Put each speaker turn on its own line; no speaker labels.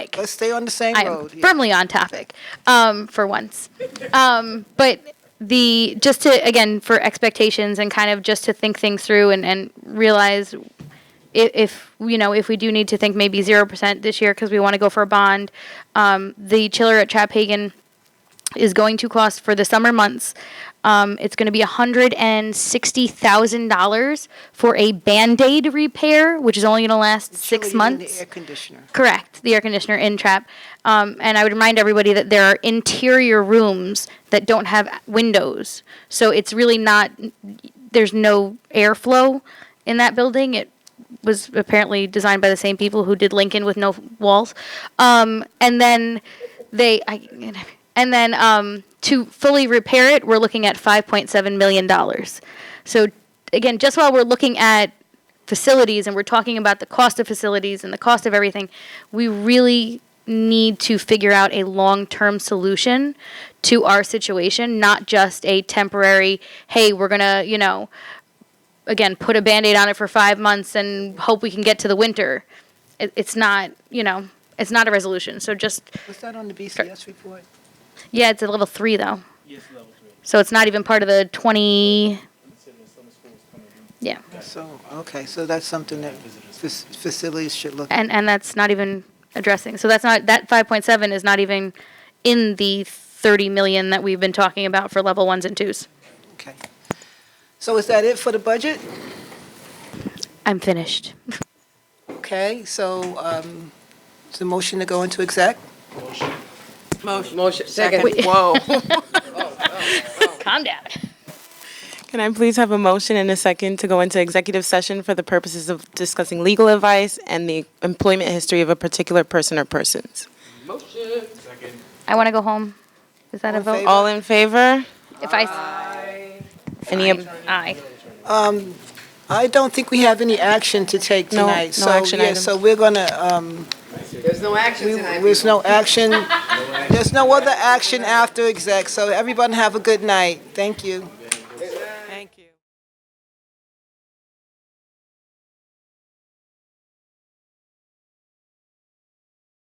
Let's stay on the same
I'm
road. yeah.
firmly on topic um, for once. Um, but the just to again for expectations and kind of just to think things through and, and realize if, if you know if we do need to think maybe zero percent this year because we want to go for a bond. Um, the chiller at Chaphagen is going to cost for the summer months. Um, it's going to be $160,000 for a band aid repair, which is only going to last six
Chili and
months.
The air conditioner.
Correct, the air conditioner in trap. Um, and I would remind everybody that there are interior rooms that don't have windows. So it's really not, there's no airflow in that building. It was apparently designed by the same people who did Lincoln with no walls. Um, and then they, I, and then um, to fully repair it, we're looking at $5.7 million. So again, just while we're looking at facilities and we're talking about the cost of facilities and the cost of everything, we really need to figure out a long-term solution to our situation, not just a temporary, hey, we're going to, you know, again, put a band-aid on it for 5 months and hope we can get to the winter. It, it's not, you know, it's not a resolution. So just
Was that on the BCS report?
yeah, it's a level 3 though.
Yes, level three.
So it's not even part of the 20
It's in the summer school is coming in.
yeah.
So, okay, so that's something that fac- facilities should look at.
and and that's not even addressing. So that's not that 5.7 is not even in the 30 million that we've been talking about for level ones and twos.
Okay. So is that it for the budget?
I'm finished.
Okay, so um, it's a motion to go into exec?
Motion, second.
Wait.
Whoa.
Oh, Calm down.
Can I please have a motion and a second to go into executive session for the purposes of discussing legal advice and the employment history of a particular person or persons?
Motion.
I want to go home. Is that a
All in
vote?
favor?
All in favor?
If I s-
Any, ob-
aye.
I don't think we have any action to take
No,
tonight.
no
so,
action
yeah,
items.
So we're going to,
There's no action tonight.
there's no action, there's no other action after exec, so everyone have a good night. Thank you.
thank you.